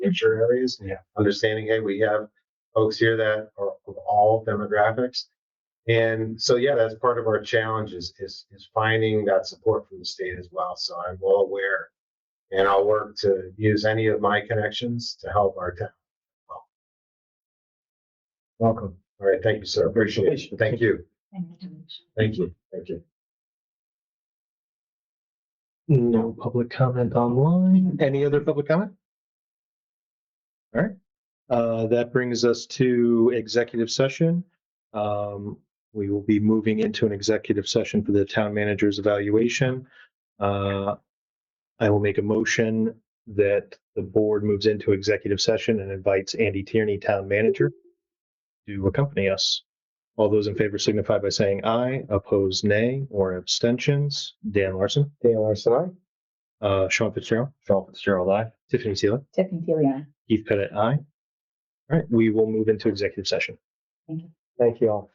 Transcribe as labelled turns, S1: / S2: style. S1: future areas and understanding, hey, we have folks here that are of all demographics. And so, yeah, that's part of our challenge is, is, is finding that support from the state as well. So I'm well aware and I'll work to use any of my connections to help our town.
S2: Welcome.
S1: All right. Thank you, sir. Appreciate it. Thank you. Thank you. Thank you.
S2: No public comment online. Any other public comment? All right. Uh, that brings us to executive session. Um, we will be moving into an executive session for the town manager's evaluation. Uh, I will make a motion that the board moves into executive session and invites Andy Tierney, town manager, to accompany us. All those in favor signify by saying aye, opposed nay, or abstentions. Dan Larson?
S1: Dan Larson, I.
S2: Uh, Sean Fitzgerald,
S1: Phil Fitzgerald, I.
S2: Tiffany Sealer,
S3: Tiffany Tiliana.
S2: Keith Pettit, aye. All right, we will move into executive session.
S1: Thank you all.